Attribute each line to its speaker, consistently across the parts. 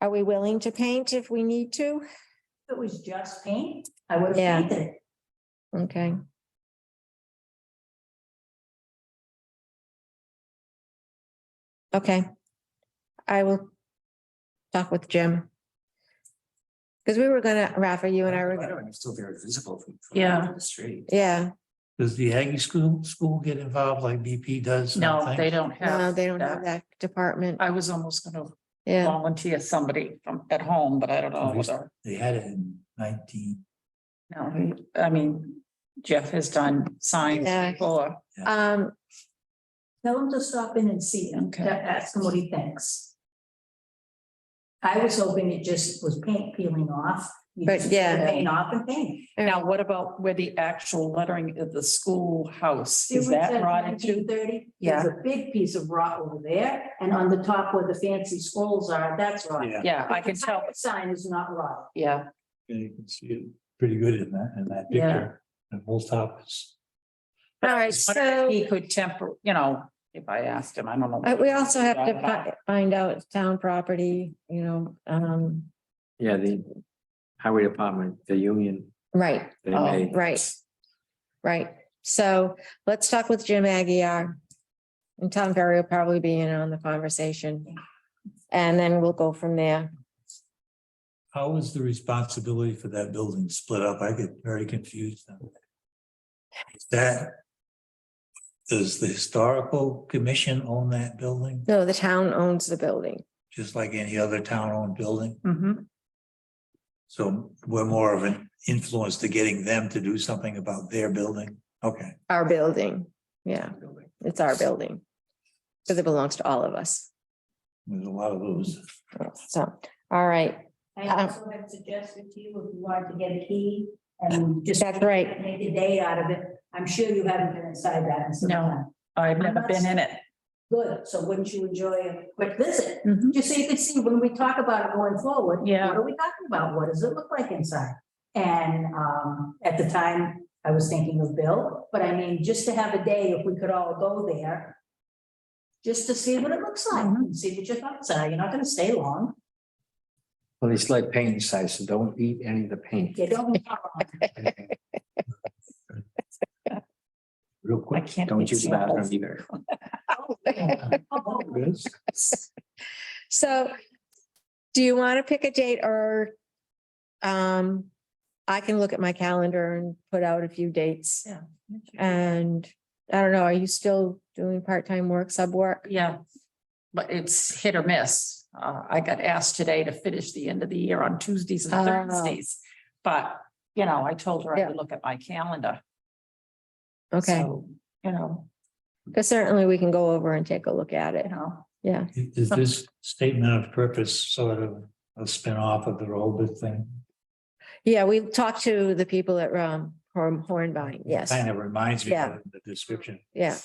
Speaker 1: Are we willing to paint if we need to?
Speaker 2: If it was just paint, I would
Speaker 1: Yeah.
Speaker 2: have painted. it.
Speaker 1: Okay. Okay. I will talk with Jim. Because we were gonna, Rafa, you and I were,
Speaker 3: It's still very visible from. from
Speaker 4: Yeah.
Speaker 3: The street.
Speaker 1: yeah,
Speaker 5: Does the Aggie school, school get involved like BP does? in
Speaker 4: No,
Speaker 5: things?
Speaker 4: they don't
Speaker 1: no,
Speaker 4: have.
Speaker 1: they don't have that department.
Speaker 4: I was almost gonna
Speaker 1: Yeah,
Speaker 4: volunteer somebody from at home, but I don't know
Speaker 5: Obvious-
Speaker 4: whether,
Speaker 5: They had it in nineteen,
Speaker 4: no, he- I mean, Jeff has done signs
Speaker 1: Yeah.
Speaker 4: before.
Speaker 1: um,
Speaker 2: Tell him to stop in and see him,
Speaker 4: Okay.
Speaker 2: ask him what he thinks. I was hoping it just was paint peeling off. You
Speaker 1: But
Speaker 2: just
Speaker 1: yeah.
Speaker 2: Paint off and paint.
Speaker 4: Now, what about where the actual lettering of the schoolhouse, is that rotted too?
Speaker 2: Thirty,
Speaker 4: Yeah.
Speaker 2: there's a big piece of rock over there, and on the top where the fancy scrolls are, that's rotten.
Speaker 3: Yeah.
Speaker 4: Yeah, I
Speaker 2: But the
Speaker 4: can tell,
Speaker 2: pirate Sign is not rotten.
Speaker 4: yeah,
Speaker 5: Yeah, you can see it pretty good in that, in that
Speaker 4: Yeah.
Speaker 5: picture. The whole top is,
Speaker 1: all right, so.
Speaker 4: he could temper, you know, if I asked him, I don't know.
Speaker 1: Uh, we also have to fi- find out town property, you know, um,
Speaker 3: Yeah, the highway department, the union,
Speaker 1: right,
Speaker 3: they
Speaker 4: Oh.
Speaker 3: may.
Speaker 1: right. Right, so let's talk with Jim Aguirre. And Tom Ferry will probably be in on the conversation. And then we'll go from there.
Speaker 5: how is the responsibility for that building split up? I get very confused. on that. Is That, does the historical commission own that building,
Speaker 1: No, the town owns the building.
Speaker 5: just like any other town-owned building?
Speaker 4: Mhm.
Speaker 5: So we're more of an influence to getting them to do something about their building? Okay.
Speaker 1: Our building, yeah, it's our building. Because it belongs to all of us,
Speaker 5: There's a lot of those.
Speaker 1: so, all right,
Speaker 2: I
Speaker 1: Um,
Speaker 2: also had suggested to you if you wanted to get a key and just.
Speaker 1: That's right.
Speaker 2: Make a day out of it. I'm sure you haven't been inside that in some
Speaker 4: No.
Speaker 2: time.
Speaker 4: I've never been in it.
Speaker 2: Good, so wouldn't you enjoy a quick visit?
Speaker 1: Mm-hmm.
Speaker 4: Mhm.
Speaker 2: Just so you could see when we talk about it going forward.
Speaker 4: Yeah.
Speaker 2: What are we talking about? What does it look like inside? And um, at the time, I was thinking of Bill, but I mean, just to have a day, if we could all go there. Just to see what it looks like, and see what your thoughts are. You're not gonna stay long.
Speaker 3: Well, it's like paint inside, so don't eat any of the paint.
Speaker 2: You don't. be hot on it.
Speaker 3: Real
Speaker 4: I
Speaker 3: quick,
Speaker 4: can't.
Speaker 3: don't
Speaker 4: make
Speaker 3: use the bathroom
Speaker 4: samples.
Speaker 3: either.
Speaker 2: Oh,
Speaker 1: so. Do you want to pick a date or? Um, I can look at my calendar and put out a few dates.
Speaker 4: Yeah. Mm-hmm.
Speaker 1: And I don't know, are you still doing part-time work, sub work?
Speaker 4: Yeah, but it's hit or miss. Uh, I got asked today to finish the end of the year on Tuesdays and
Speaker 1: Oh.
Speaker 4: Thursdays. But, you know, I told her I
Speaker 1: Yeah.
Speaker 4: would look at my calendar.
Speaker 1: Okay,
Speaker 4: So, You know,
Speaker 1: because certainly we can go over and take a look at it.
Speaker 4: you know,
Speaker 1: Yeah,
Speaker 5: Is this statement of purpose sort of a spin-off of the Roebuck thing?
Speaker 1: yeah, we talked to the people at um Horn- Hornbein, yes,
Speaker 5: Kind of reminds me
Speaker 1: Yeah.
Speaker 5: of the description.
Speaker 1: yeah.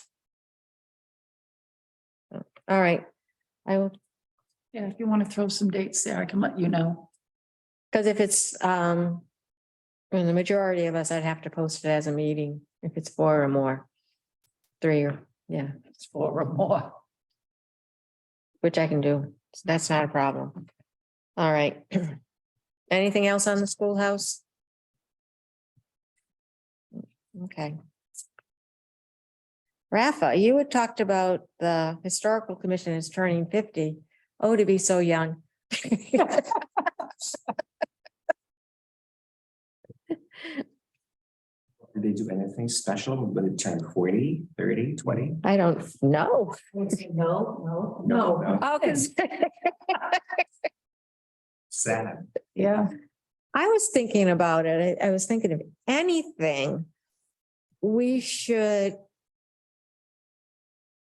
Speaker 1: All right, I will,
Speaker 4: yeah, if you want to throw some dates there, I can let you know.
Speaker 1: because if it's um. In the majority of us, I'd have to post it as a meeting if it's four or more. Three or, yeah,
Speaker 4: It's four or more.
Speaker 1: which I can do. So That's not a problem. All right. Anything else on the schoolhouse? Okay. Rafa, you had talked about the historical commission is turning fifty. Oh, to be so young.
Speaker 3: Did they do anything special when it turned 40, 30, 20?
Speaker 1: I don't know.
Speaker 2: No, no, no.
Speaker 1: Oh, because
Speaker 3: Sad.
Speaker 4: Yeah.
Speaker 1: I was thinking about it. I I was thinking of anything. We should.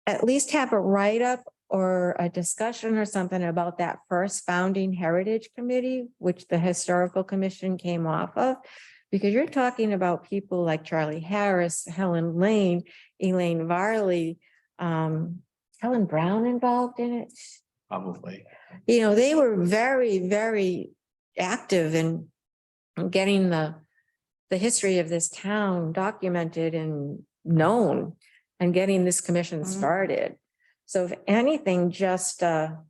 Speaker 1: At least have a write-up or a discussion or something about that first founding heritage committee, which the historical commission came off of. Because you're talking about people like Charlie Harris, Helen Lane, Elaine Varley, um, Helen Brown involved in it
Speaker 3: Probably.
Speaker 1: you know, they were very, very active in getting the, the history of this town documented and known and getting this commission
Speaker 4: Mhm.
Speaker 1: started. So if anything, just uh, a